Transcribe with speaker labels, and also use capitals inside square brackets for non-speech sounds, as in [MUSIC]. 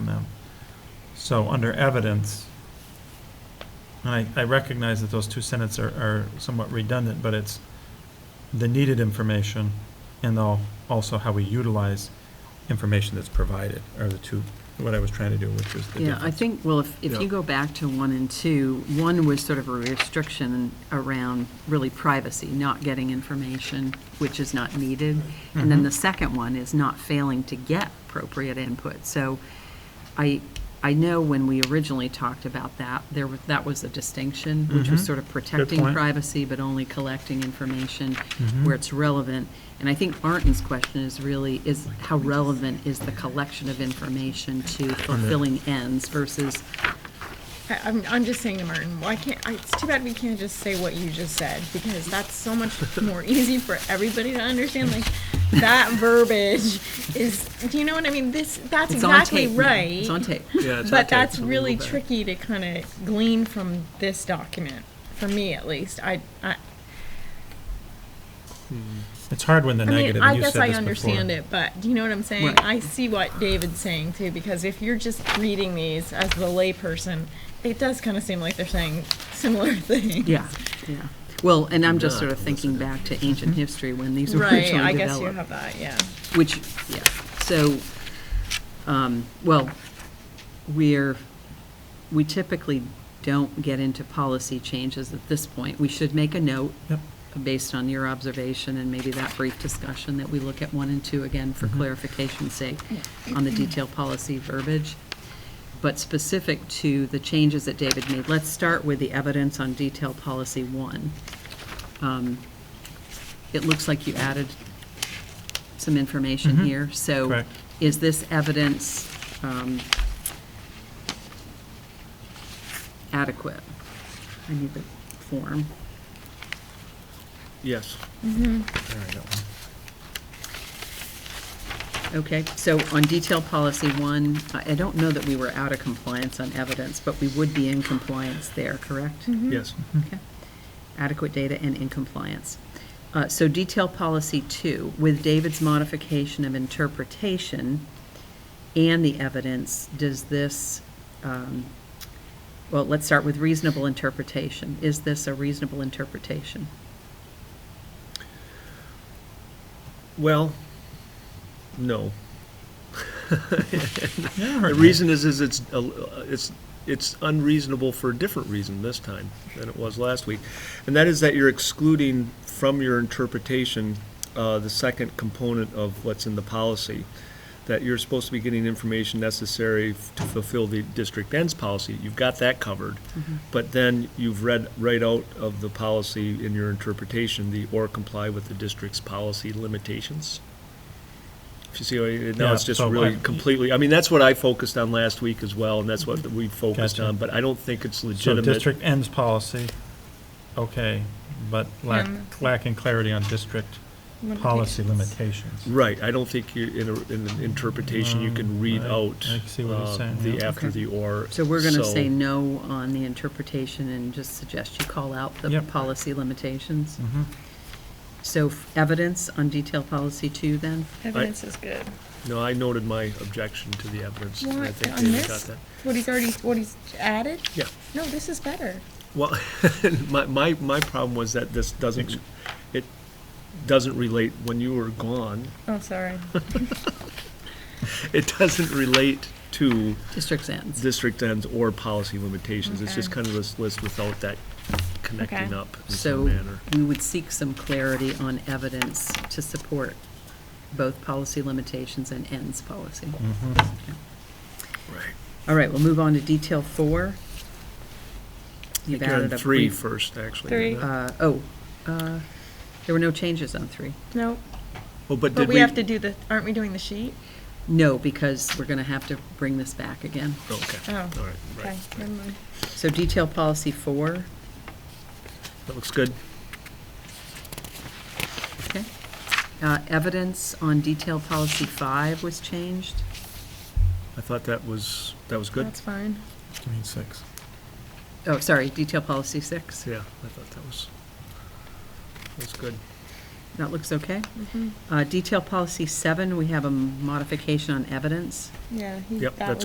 Speaker 1: So under evidence, and I, I recognize that those two sentences are, are somewhat redundant, but it's the needed information and al- also how we utilize information that's provided are the two, what I was trying to do, which was the
Speaker 2: Yeah, I
Speaker 1: difference.
Speaker 2: think, well, if, if
Speaker 3: Yeah.
Speaker 2: you go back to one and two, one was sort of a restriction around really privacy, not getting information which is not needed. And
Speaker 1: Mm-hmm.
Speaker 2: then the second one is not failing to get appropriate input. So I, I know when we originally talked about that, there, was- that was a distinction, which was
Speaker 1: Mhm.
Speaker 2: sort of protecting
Speaker 1: point. Mm-hmm.
Speaker 2: privacy, but only collecting information where it's relevant. And I think Martin's question is really, is how relevant is the collection of information to fulfilling ends versus,
Speaker 4: I- I'm, I'm just saying to Martin, why can't, I- it's too bad we can't just say what you just said, because that's so much more [LAUGHS] easy for everybody to understand, like, that
Speaker 2: [LAUGHS]
Speaker 4: verbiage is, do you know what I mean? This, that's
Speaker 2: it's on
Speaker 4: exactly
Speaker 2: tape. now.
Speaker 4: right.
Speaker 2: It's on
Speaker 4: [LAUGHS]
Speaker 2: tape.
Speaker 3: Yeah, it's
Speaker 4: But
Speaker 3: okay.
Speaker 4: that's really
Speaker 2: better.
Speaker 4: tricky to kind of glean from this document, for me at least. I, I,
Speaker 1: It's hard when the
Speaker 4: I mean,
Speaker 1: negative,
Speaker 4: I
Speaker 1: and you said this
Speaker 4: guess
Speaker 1: before.
Speaker 4: I understand it, but do you know what I'm saying?
Speaker 2: Right.
Speaker 4: I see what David's saying too, because if you're just reading these as the layperson, it does kind of seem like they're saying similar [LAUGHS] things.
Speaker 2: Yeah, yeah. Well, and I'm just
Speaker 3: Yeah,
Speaker 2: sort of
Speaker 3: that's
Speaker 2: thinking back to ancient history when these were
Speaker 4: Mm-hmm.
Speaker 2: [LAUGHS]
Speaker 4: Right,
Speaker 2: originally
Speaker 4: I guess you
Speaker 2: developed.
Speaker 4: have that, yeah.
Speaker 2: Which, yeah, so, um, well, we're, we typically don't get into policy changes at this point. We should make a note
Speaker 1: Yep.
Speaker 2: based on your observation and maybe that brief discussion, that we look at one and two again for clarification's sake on the detailed policy verbiage. But specific to the changes that David made, let's start with the evidence on detailed policy one. Um, It looks like you added some information
Speaker 1: Mhm.
Speaker 2: here, so.
Speaker 1: Correct.
Speaker 2: Is this evidence um, adequate? I need the form.
Speaker 3: Yes.
Speaker 1: There we go.
Speaker 2: Okay, so on detail policy one, I I don't know that we were out of compliance on evidence, but we would be in compliance there, correct?
Speaker 4: Mm-hmm.
Speaker 3: Yes.
Speaker 2: Okay. Adequate data and in compliance. Uh, So detail policy two, with David's modification of interpretation and the evidence, does this, um, well, let's start with reasonable interpretation. Is this a reasonable interpretation?
Speaker 3: Well, no.
Speaker 1: Yeah, I
Speaker 3: The
Speaker 1: heard that.
Speaker 3: reason is, is it's, a- it's, it's unreasonable for a different reason this time than it was last week. And that is that you're excluding from your interpretation, uh, the second component of what's in the policy. That you're supposed to be getting information necessary f- to fulfill the district ends policy. You've got that covered.
Speaker 1: Mm-hmm.
Speaker 3: But then you've read right out of the policy in your interpretation, the or comply with the district's policy limitations. If you see, what I- now it's
Speaker 1: Yeah,
Speaker 3: just
Speaker 1: so
Speaker 3: really
Speaker 1: I-
Speaker 3: completely, I mean, that's what I focused on last week as well, and that's what we focused
Speaker 1: Gotcha.
Speaker 3: on, but I don't think it's
Speaker 1: So
Speaker 3: legitimate.
Speaker 1: district ends policy, okay, but lack,
Speaker 4: Yeah.
Speaker 1: lacking clarity on district policy limitations.
Speaker 3: Right, I don't think you, in a, in an interpretation, you can
Speaker 1: Um,
Speaker 3: read
Speaker 1: I-
Speaker 3: out.
Speaker 1: I see what he's
Speaker 3: uh,
Speaker 1: saying,
Speaker 3: The
Speaker 1: yeah.
Speaker 3: after
Speaker 2: Okay.
Speaker 3: the or.
Speaker 2: So we're going to say no on the interpretation and just suggest you call out the
Speaker 1: Yep.
Speaker 2: policy limitations?
Speaker 1: Mhm.
Speaker 2: So f- evidence on detail policy two, then?
Speaker 4: Evidence is good.
Speaker 3: No, I noted my objection to the evidence, and I
Speaker 4: What,
Speaker 3: think
Speaker 4: on
Speaker 3: David got
Speaker 4: this?
Speaker 3: that.
Speaker 4: What he's already, what he's added?
Speaker 3: Yeah.
Speaker 4: No, this is better.
Speaker 3: Well, [LAUGHS] my, my, my problem was that this doesn't, it doesn't relate, when you were gone, [LAUGHS]
Speaker 4: Oh, sorry.
Speaker 3: it doesn't relate to
Speaker 2: District's ends.
Speaker 3: district ends or policy limitations. It's just
Speaker 4: Okay.
Speaker 3: kind of this list without that connecting
Speaker 4: Okay.
Speaker 3: up in some
Speaker 2: So
Speaker 3: manner.
Speaker 2: we would seek some clarity on evidence to support both policy limitations and ends policy.
Speaker 3: Mm-hmm.
Speaker 2: Okay.
Speaker 3: Right.
Speaker 2: All right, we'll move on to detail four.
Speaker 3: I
Speaker 2: You've
Speaker 3: think you're
Speaker 2: added
Speaker 3: on
Speaker 2: a
Speaker 3: three
Speaker 2: brief.
Speaker 3: first, actually.
Speaker 4: Three.
Speaker 3: isn't it?
Speaker 2: uh, Oh, uh, there were no changes on three.
Speaker 4: No,
Speaker 3: Well, Oh, but
Speaker 4: but
Speaker 3: did
Speaker 4: we
Speaker 3: we?
Speaker 4: have to do the, aren't we doing the sheet?
Speaker 2: No, because we're going to have to bring this back again.
Speaker 3: Oh, Okay,
Speaker 4: Oh,
Speaker 3: all right,
Speaker 4: Okay,
Speaker 3: right.
Speaker 4: never mind.
Speaker 2: So detail policy four,
Speaker 3: That looks good.
Speaker 2: okay. Uh, Evidence on detail policy five was changed.
Speaker 3: I thought that was, that was good.
Speaker 4: That's fine.
Speaker 1: Give me six.
Speaker 2: Oh, sorry, detail policy six.
Speaker 3: Yeah, I thought that was, that's good.
Speaker 2: That looks okay.
Speaker 4: Mhm.
Speaker 2: Uh, Detail policy seven, we have a modification on evidence.
Speaker 4: Yeah. he-
Speaker 3: Yep,
Speaker 4: that
Speaker 3: that's